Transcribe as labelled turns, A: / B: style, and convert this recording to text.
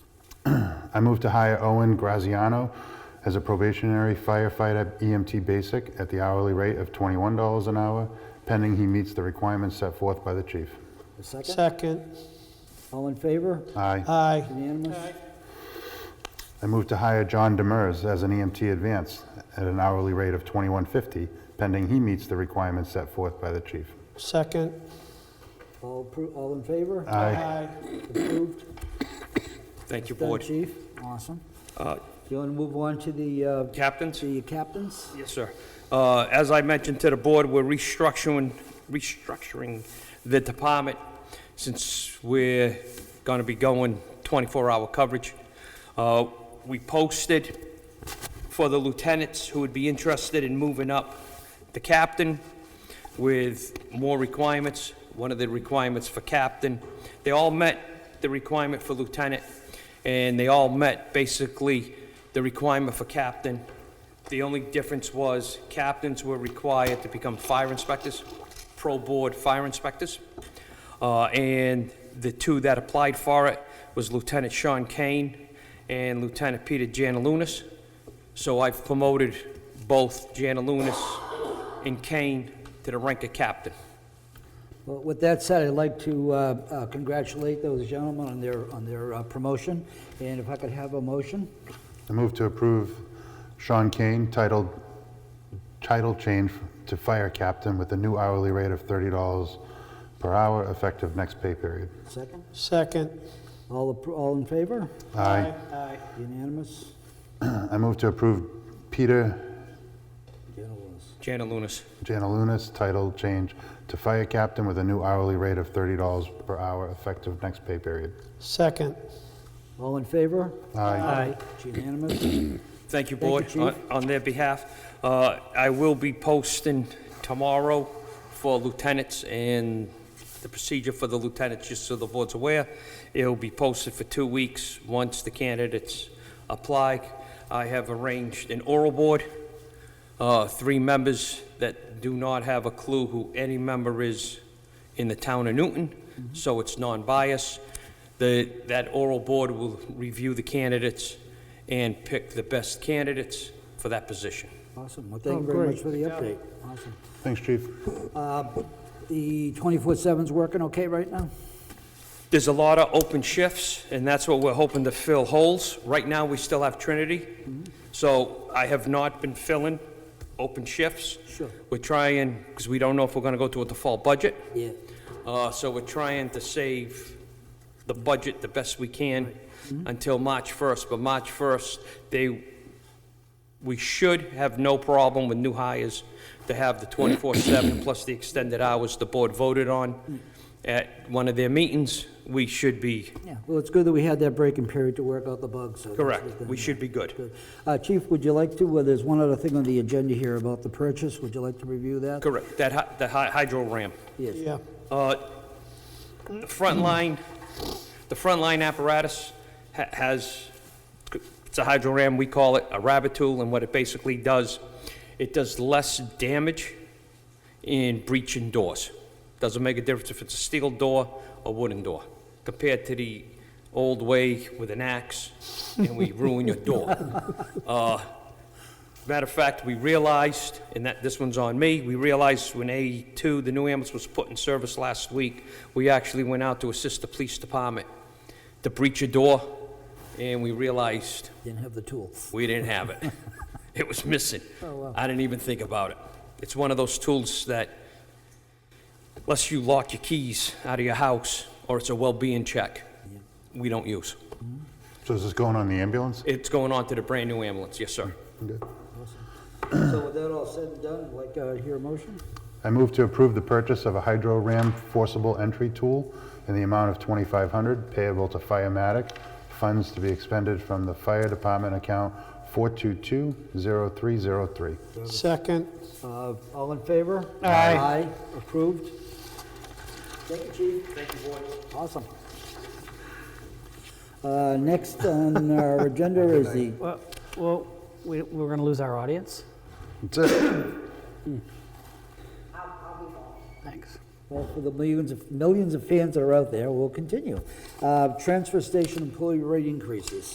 A: I move to hire Owen Graziano as a probationary firefighter EMT basic at the hourly rate of $21 an hour, pending he meets the requirements set forth by the chief.
B: A second?
C: Second.
B: All in favor?
A: Aye.
C: Aye.
B: Unanimous?
A: I move to hire John Demers as an EMT advance at an hourly rate of $21.50, pending he meets the requirements set forth by the chief.
C: Second.
B: All appro, all in favor?
A: Aye.
B: Approved.
D: Thank you,
B: Done,
D: Board.
B: chief. Awesome.
D: Uh,
B: Do you want to move on to the, uh,
D: Captains?
B: the captains?
D: Yes, sir. Uh, As I mentioned to the board, we're restructuring, restructuring the department since we're going to be going 24-hour coverage. Uh, We posted for the lieutenants who would be interested in moving up the captain with more requirements. One of the requirements for captain, they all met the requirement for lieutenant, and they all met basically the requirement for captain. The only difference was captains were required to become fire inspectors, pro-board fire inspectors. Uh, And the two that applied for it was Lieutenant Sean Kane and Lieutenant Peter Janalunas. So I've promoted both Janalunas and Kane to the rank of captain.
B: Well, with that said, I'd like to uh, uh, congratulate those gentlemen on their, on their uh, promotion, and if I could have a motion?
A: I move to approve Sean Kane titled, title change to fire captain with a new hourly rate of $30 per hour effective next pay period.
B: Second?
C: Second.
B: All, appro- all in favor?
A: Aye.
C: Aye.
B: Unanimous?
A: I move to approve Peter
B: Unanimous.
D: Janalunas.
A: Janalunas title change to fire captain with a new hourly rate of $30 per hour effective next pay period.
C: Second.
B: All in favor?
A: Aye.
B: It's Unanimous?
D: Thank you,
B: Thank you,
D: Board, on on their behalf. Uh, I will be posting tomorrow for lieutenants and the procedure for the lieutenants, just so the Board's aware. It'll be posted for two weeks, once the candidates apply. I have arranged an oral board, uh, three members that do not have a clue who any member is in the town of Newton, so it's non-biased. The, that oral board will review the candidates and pick the best candidates for that position.
B: Awesome, well, thank
C: Oh,
B: you very much
C: great.
B: for the update. Awesome.
A: Thanks, chief.
B: The 24/7's working okay right now?
D: There's a lot of open shifts, and that's what we're hoping to fill holes. Right now, we still have Trinity, so I have not been filling open shifts.
B: Sure.
D: We're trying, because we don't know if we're going to go to a default budget.
B: Yeah.
D: Uh, So we're trying to save the budget the best we can until March 1st. But March 1st, they, we should have no problem with new hires to have the 24/7 plus the extended hours the board voted on at one of their meetings. We should be,
B: Yeah, well, it's good that we had that breaking period to work out the bugs, so. that's
D: correct,
B: within-
D: we should be good.
B: Good. Uh, Chief, would you like to, well, there's one other thing on the agenda here about the purchase, would you like to review that?
D: Correct, that, hy- the hy- hydro ramp.
B: Yes.
C: Yeah.
D: Uh, The front line, the front line apparatus ha- has, it's a hydro ram, we call it a rabbit tool, and what it basically does, it does less damage in breaching doors. Doesn't make a difference if it's a steel door or wooden door, compared to the old way with an axe, and we ruin your door. Uh, Matter of fact, we realized, and that, this one's on me, we realized when A2, the new ambulance was put in service last week, we actually went out to assist the police department to breach a door, and we realized
B: Didn't have the tool.
D: we didn't have it. It was missing. I didn't even think about it. It's one of those tools that, unless you lock your keys out of your house, or it's a well-being check, we don't use.
A: So is this going on the ambulance?
D: It's going on to the brand-new ambulance, yes, sir.
B: So with that all said and done, I'd like to hear a motion?
A: I move to approve the purchase of a hydro ram forcible entry tool in the amount of $2,500 payable to Firematic, funds to be expended from the fire department account 422-0303.
C: Second.
B: Uh, All in favor?
C: Aye.
B: Aye, approved. Thank you, chief. Thank you, board. Awesome. Uh, Next on our agenda is the,
E: Well, well, we, we're going to lose our audience.
A: That's it.
E: Thanks.
B: well, for the millions of, millions of fans that are out there, we'll continue. Uh, Transfer station employee rate increases.